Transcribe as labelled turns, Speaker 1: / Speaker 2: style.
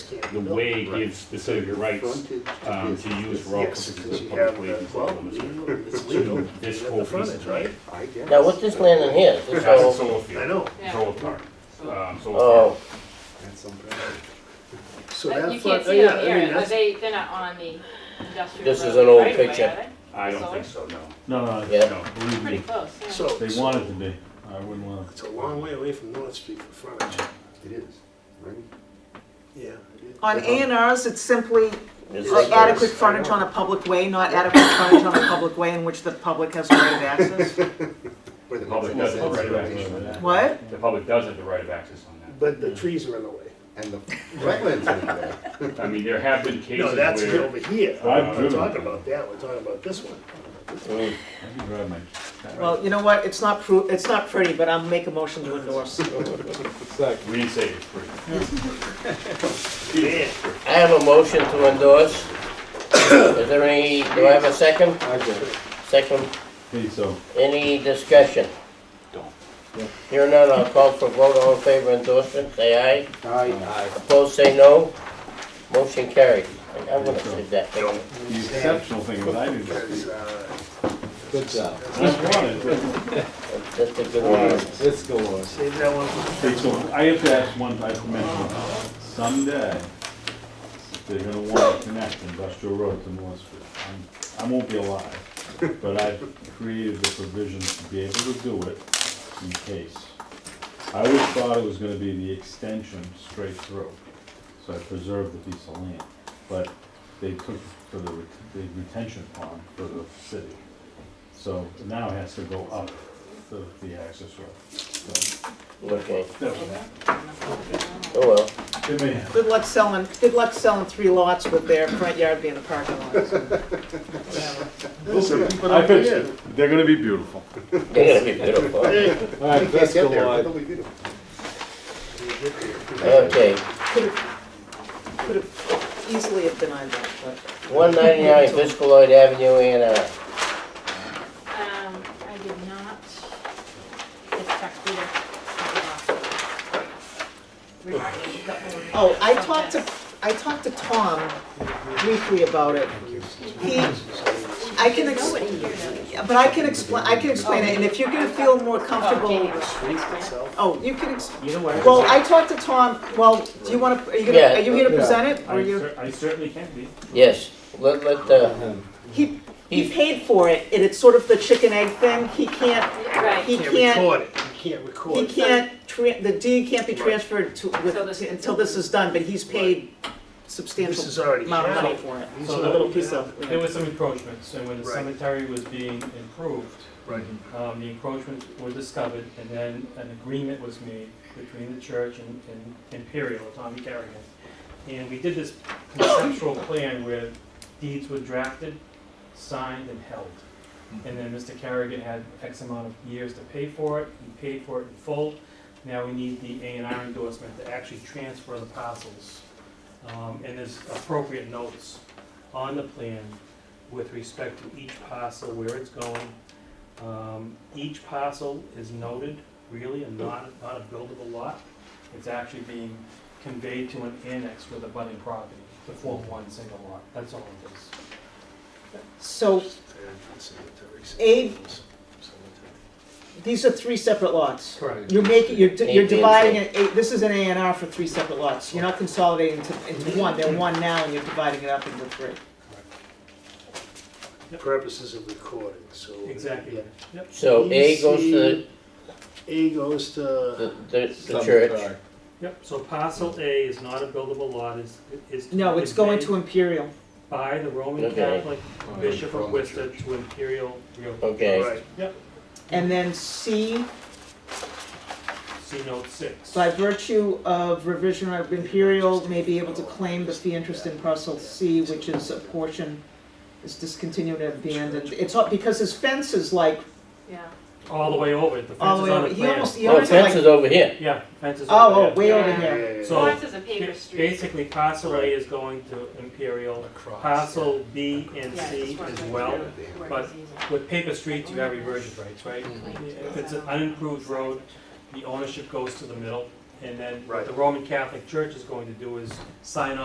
Speaker 1: the way gives specific rights um, to use for all
Speaker 2: Yes,
Speaker 1: purposes
Speaker 2: because
Speaker 1: of
Speaker 2: you
Speaker 1: public
Speaker 2: have
Speaker 1: way
Speaker 2: the-
Speaker 1: and
Speaker 2: well,
Speaker 1: development.
Speaker 2: It's legal.
Speaker 1: To this
Speaker 2: You have
Speaker 1: whole
Speaker 2: the
Speaker 1: piece
Speaker 2: frontage,
Speaker 1: of
Speaker 2: right?
Speaker 1: land.
Speaker 2: I guess.
Speaker 3: Now, what's this land in here? This
Speaker 4: That's a
Speaker 3: all,
Speaker 4: solar field.
Speaker 2: I know.
Speaker 5: Yeah.
Speaker 4: Solar farm. Um, solar
Speaker 3: oh,
Speaker 4: farm.
Speaker 2: So
Speaker 5: But
Speaker 2: that
Speaker 5: you
Speaker 2: front,
Speaker 5: can't
Speaker 2: oh,
Speaker 5: see
Speaker 2: yeah,
Speaker 5: them
Speaker 2: I mean,
Speaker 5: here, but
Speaker 2: that's,
Speaker 5: they, they're not on the industrial.
Speaker 3: This is
Speaker 5: road
Speaker 3: an old
Speaker 5: right away,
Speaker 3: picture.
Speaker 5: are they?
Speaker 4: I don't think so, no.
Speaker 6: No, no,
Speaker 3: Yeah.
Speaker 6: no,
Speaker 5: Pretty
Speaker 6: believe me,
Speaker 5: close, yeah.
Speaker 2: so.
Speaker 6: they want it to be, I wouldn't want
Speaker 2: It's a long way away from North Street for frontage,
Speaker 1: It is, right?
Speaker 2: yeah.
Speaker 7: On A and Rs, it's simply
Speaker 3: this is,
Speaker 7: adequate frontage on a public way, not adequate frontage on a public way in which the public has the right of access.
Speaker 1: Where the
Speaker 4: Public
Speaker 1: business
Speaker 4: does
Speaker 1: is,
Speaker 4: have the right of
Speaker 1: right?
Speaker 4: access on that.
Speaker 7: What?
Speaker 4: The public does have the right of access on
Speaker 2: But the trees are in the way.
Speaker 1: And the wetlands in there.
Speaker 4: that. I mean, there have been
Speaker 2: No,
Speaker 4: cases
Speaker 2: that's
Speaker 4: where,
Speaker 2: over here. We're
Speaker 6: I've driven.
Speaker 2: talking about that, we're talking about this one.
Speaker 3: mm,
Speaker 6: it, I could drive my.
Speaker 7: Well, you know what, it's not pro, it's not pretty, but I'll make a motion to endorse.
Speaker 4: we didn't say it's free.
Speaker 2: Yeah.
Speaker 3: I have a motion to endorse. Is there any, do I have a second?
Speaker 1: I get it.
Speaker 3: Second,
Speaker 6: Okay, so,
Speaker 3: any discussion?
Speaker 4: Don't.
Speaker 3: Here none, I'll call for vote, all in favor of endorsement, say aye.
Speaker 1: Aye.
Speaker 3: Opposed, say no. Motion carried. I'm gonna save that picture.
Speaker 6: the exceptional thing is I didn't
Speaker 2: Because,
Speaker 6: speak.
Speaker 2: uh,
Speaker 8: Good job.
Speaker 6: I wanted,
Speaker 3: That's a good one.
Speaker 8: Let's go on.
Speaker 2: save that one for
Speaker 6: but, okay, so I have to ask one, I have to mention, one. someday, they're gonna wanna connect industrial road to North Street. I'm- I won't be alive, but I've created the provisions to be able to do it in case. I always thought it was gonna be the extension straight through, so I preserved the piece of land. But they took for the, ret- the retention pond for the city. So now it has to go up the, the access road. So
Speaker 3: Okay,
Speaker 6: that was that.
Speaker 3: oh well.
Speaker 6: It may happen.
Speaker 7: Good luck selling, good luck selling three lots with their front yard being a parking lot. so.
Speaker 6: Listen, I fixed it. They're gonna be beautiful.
Speaker 3: They're gonna be beautiful.
Speaker 8: All right,
Speaker 1: Can't
Speaker 8: let's
Speaker 1: get
Speaker 8: go
Speaker 1: there,
Speaker 8: on.
Speaker 1: it'll be beautiful.
Speaker 3: Okay,
Speaker 7: Could have easily have denied that, but.
Speaker 3: one ninety-nine Fiscal Lloyd Avenue, A and uh, R.
Speaker 5: Um, I did not, it's checked either. Regarding the owner
Speaker 7: Oh, I
Speaker 5: of
Speaker 7: talked to,
Speaker 5: this.
Speaker 7: I talked to Tom briefly about it. He, I can, ex-
Speaker 5: Nobody here knows.
Speaker 7: but I can explain, I can explain it, and if you're gonna feel more comfortable,
Speaker 5: Oh,
Speaker 2: trees itself.
Speaker 7: oh, you can, ex- well, I talked to Tom, well, do you wanna, are you gonna,
Speaker 3: Yeah.
Speaker 7: are you gonna
Speaker 8: Yeah.
Speaker 7: present it, or
Speaker 6: I
Speaker 7: are you?
Speaker 6: cer- I certainly can be.
Speaker 3: Yes, let, let, uh,
Speaker 7: He, he
Speaker 3: He's-
Speaker 7: paid for it, and it's sort of the chicken egg thing, he can't,
Speaker 5: Right.
Speaker 7: he
Speaker 2: Can't
Speaker 7: can't,
Speaker 2: record it, you can't record
Speaker 7: he
Speaker 2: it.
Speaker 7: can't, tran- the deed can't be transferred to, with,
Speaker 5: So this-
Speaker 7: until this is done, but he's paid
Speaker 2: This
Speaker 7: substantial
Speaker 2: is already.
Speaker 7: amount of money
Speaker 2: happening.
Speaker 7: for it.
Speaker 2: These
Speaker 9: So
Speaker 2: are-
Speaker 7: A little piece of,
Speaker 9: There were some encroachments, and when the
Speaker 2: Right.
Speaker 9: cemetery was being improved,
Speaker 2: Right.
Speaker 9: um, the encroachments were discovered, and then an agreement was made between the church and and Imperial, Tommy Carrigan. And we did this conceptual plan where deeds were drafted, signed, and held. And then Mr. Carrigan had X amount of years to pay for it, he paid for it in full. Now we need the A and R endorsement to actually transfer the parcels. Um, And there's appropriate notes on the plan with respect to each parcel, where it's going. Um, Each parcel is noted, really, and not, not a buildable lot. It's actually being conveyed to an annex with a budding property to form one single lot. That's all it is.
Speaker 7: So,
Speaker 2: And cemetery,
Speaker 7: Abe?
Speaker 2: cemetery.
Speaker 7: these are three separate lots.
Speaker 9: Correct.
Speaker 7: You're making, you're, di- you're
Speaker 3: Eight, eight,
Speaker 7: dividing it, eight- this is an A and R for three separate lots, you're not consolidating into, into one, they're one now, and you're dividing it up into three.
Speaker 2: Purposes of recording, so.
Speaker 9: Exactly. Yep.
Speaker 3: so A goes to the-
Speaker 2: A goes
Speaker 3: the,
Speaker 2: to,
Speaker 3: the, the
Speaker 8: Some
Speaker 3: church.
Speaker 8: car.
Speaker 9: Yep, so parcel A is not a buildable lot, is, is.
Speaker 7: No, it's going
Speaker 9: conveyed
Speaker 7: to Imperial,
Speaker 9: By the Roman
Speaker 3: Okay.
Speaker 9: Catholic Bishop
Speaker 1: From
Speaker 9: of
Speaker 1: the
Speaker 9: Worcester to Imperial Real.
Speaker 3: Okay,
Speaker 2: right,
Speaker 7: and then C,
Speaker 9: See note six.
Speaker 7: by virtue of revision of Imperial, may be able to claim the fee interest in parcel C, which is a portion, is discontinued and abandoned, it's all, because his fence is like,
Speaker 5: Yeah.
Speaker 9: All the way over, the
Speaker 7: all
Speaker 9: fence
Speaker 7: the
Speaker 9: is
Speaker 7: way
Speaker 9: on
Speaker 7: over,
Speaker 9: the
Speaker 7: he
Speaker 9: plan.
Speaker 7: almost, he
Speaker 3: oh,
Speaker 7: almost
Speaker 3: fence
Speaker 7: like,
Speaker 3: is over here.
Speaker 9: Yeah, fence is over there.
Speaker 7: oh, oh, way over
Speaker 5: Yeah.
Speaker 7: here.
Speaker 9: So-
Speaker 5: Ours is a paper street.
Speaker 9: Basically, parcel A is going to Imperial, parcel B and
Speaker 5: Yeah,
Speaker 9: C
Speaker 5: it's just
Speaker 9: as
Speaker 5: one
Speaker 9: well.
Speaker 5: right there where
Speaker 9: but-
Speaker 5: it's easy.
Speaker 9: With paper streets, you have reversion rights, right?
Speaker 5: Mm-hmm.
Speaker 9: If it's an unimproved road, the ownership goes to the middle, and then what the Roman Catholic Church is going to do is sign